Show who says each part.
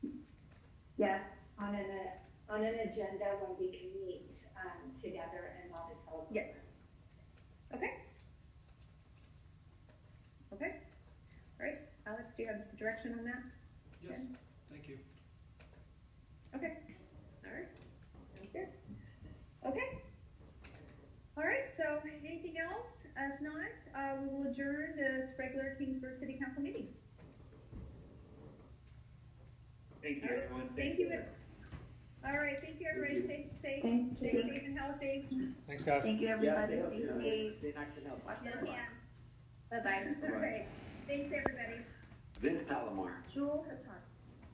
Speaker 1: Yes, on an, uh, on an agenda when we can meet, um, together and not a telephone.
Speaker 2: Yes. Okay, all right, Alex, do you have direction on that?
Speaker 3: Yes, thank you.
Speaker 2: Okay, all right, sounds good. Okay. All right, so anything else? If not, uh, we will adjourn the regular Kingsburg City Council meeting.
Speaker 4: Thank you,
Speaker 2: All right.
Speaker 4: everyone.
Speaker 2: Thank you. All right, thank you, everybody, stay safe,
Speaker 5: Thank
Speaker 2: stay
Speaker 5: you.
Speaker 2: safe and healthy.
Speaker 3: Thanks, guys.
Speaker 5: Thank you,
Speaker 4: Yeah,
Speaker 5: everybody.
Speaker 4: they,
Speaker 5: Thank you.
Speaker 4: they knocked it out.
Speaker 2: Yes, ma'am.
Speaker 5: Bye-bye.
Speaker 2: All right, thanks, everybody.
Speaker 4: Vince Palomar.
Speaker 2: Jewel Hassan.